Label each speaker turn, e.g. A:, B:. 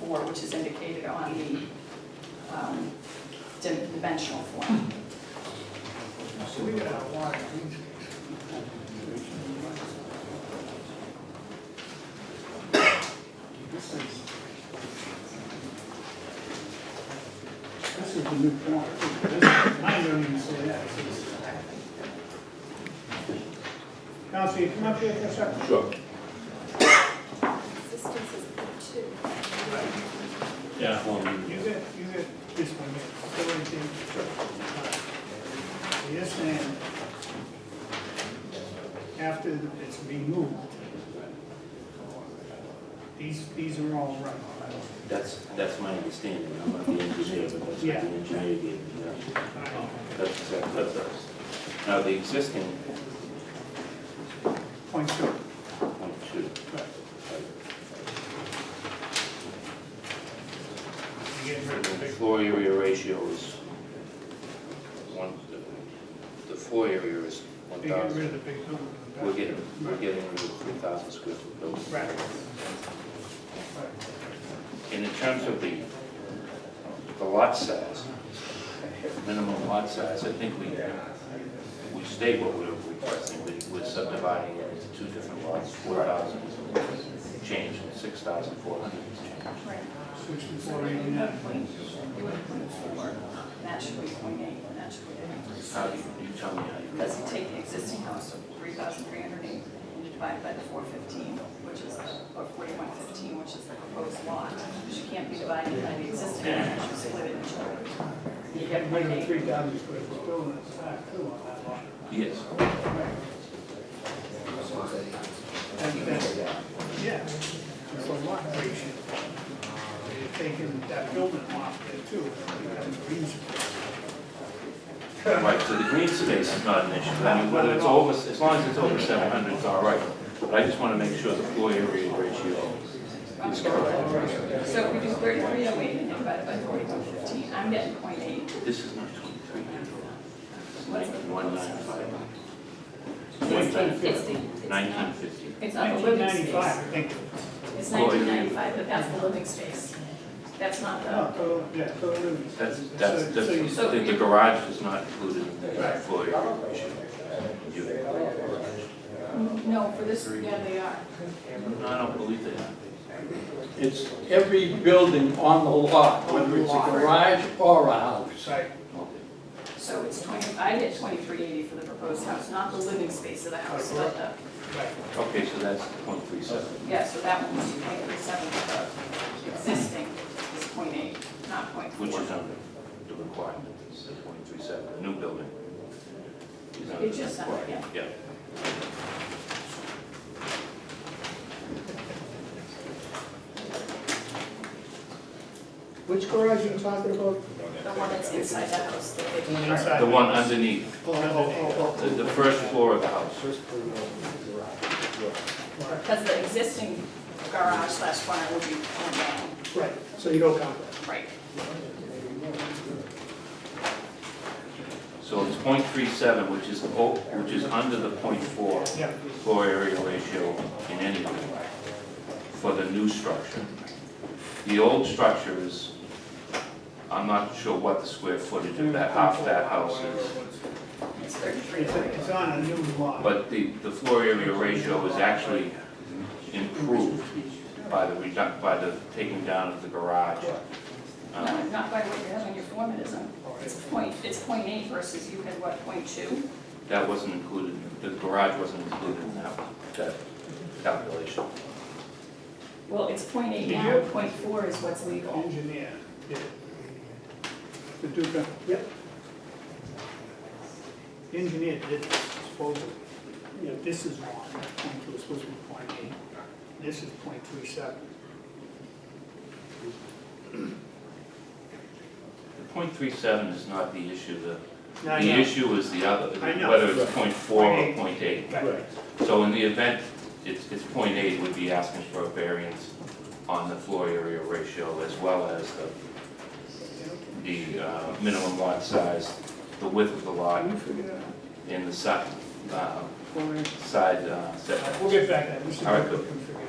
A: four, which is indicated on the um, dimensional form.
B: So we got a lot of green space. This is. This is the new form. I don't even say that. This is- Counsel, you come up here for a second.
C: Sure.
D: Existence is two.
E: Yeah.
B: You get, you get this one here. Go right there. So you're saying, after it's removed, these, these are all right.
C: That's, that's my understanding, I'm not the engineer, but that's what the
B: Yeah.
C: engineer gave me, yeah. That's exactly, that's us. Now, the existing
B: Point two.
C: point two,
B: Right. You get
C: the
B: rid of the big-
C: floor area ratio is one, the- the floor area is one
B: you get rid of
C: thousand.
B: the big building. in the back.
C: We're getting, we're
B: Right.
C: getting rid of three thousand square foot building.
B: Right.
C: And in terms of the, the lot size, minimum lot size, I think we, we state what we're requesting, we, we're subdividing it into two different lots, four thousand change, and six thousand four hundred change.
A: Right.
B: Switch to
A: So
B: four
A: you would
B: eighty-nine.
A: have point, you would have point four, and that should be point eight, and that should be increase.
C: How do you, you tell me how you.
A: Because you take the existing house of three thousand three hundred eight and you divide it by the four fifteen, which is, the- or forty-one fifteen, which is the proposed lot, because you can't be dividing by the existing, you have to split it in two. You
B: You
A: get
B: get rid
A: point
B: of the
A: eight.
B: three thousand square foot building that's back too on that lot.
C: Yes,
B: And that's, yeah, it's a lot ratio. You're taking that building off there too, and becomes green space.
C: right, so the green space is not an issue, I mean, whether it's over, as long as it's over seven hundred, it's all right. But I just wanna make sure the floor area ratio is correct.
A: So if we do thirty-three oh eight and then divide it by forty-one fifteen, I'm getting point eight.
C: This is not twenty-three hundred, it's like one nine five,
A: It's the- it's the- it's not-
C: nineteen fifty.
A: It's not the
B: Nineteen
A: living
B: ninety-five,
A: space.
B: I think.
A: It's nineteen ninety-five, but that's the living space. That's not
B: No,
A: the,
B: total, yeah, total. living space.
C: That's, that's,
B: So- so you-
C: that's, the the garage is not included in that floor area ratio. You-
A: no, for this, yeah, they are.
C: No, I don't believe that.
F: It's every building on the lot, whether it's a garage or a house.
B: Right,
A: So it's twenty, I get twenty-three eighty for the proposed house, not the living space of the house, but the,
B: right.
C: Okay, so that's point three seven.
A: yeah, so that one was point three seven, the existing is point eight, not point four.
C: Which is under the requirement, it's the point three seven, the new building. is under
A: It's
C: the
A: just under,
C: requirement. Yeah.
G: Which garage are you talking about?
A: The one that's inside the house that they.
B: One inside.
C: The one underneath,
B: Oh, oh,
C: the, the first floor of the house.
A: Because the existing garage slash barn would be torn down,
G: Right, so you don't count that.
A: right?
C: So it's point three seven, which is, o- which is under the point four
B: oh, yeah.
C: floor area ratio in any way for the new structure. The old structure is, I'm not sure what the square footage of that half that house is,
A: It's thirty-three
B: It's, it's on a new lot.
C: but the, the floor area ratio is actually improved by the reduc, by the taking down of the garage.
A: No,
C: Um,
A: not by what you have on your form, it isn't. It's point, it's point eight versus you had what, point two?
C: That wasn't included, the garage wasn't included in that, that calculation.
A: Well, it's point eight
B: Did
A: now,
B: you-
A: point four is what's legal.
B: Engineer, yeah. The Duca.
G: Yep.
B: The Engineer did this supposedly. You know, this is wrong, point two is supposed to be point eight, this is point three seven.
C: The point three seven is not the issue, the
B: Now,
C: The
B: yeah,
C: issue is the other,
B: I know.
C: whether it's point four or
B: Right.
C: point eight.
B: right,
C: So in the event it's, it's point eight, we'd be asking for a variance on the floor area ratio as well as the, the uh, minimum lot size, the width of the lot,
B: Can you figure that out?
C: and the side, uh,
B: Well,
C: side uh, setback.
B: We'll get back to that, we should.
C: All right, good.
B: we can figure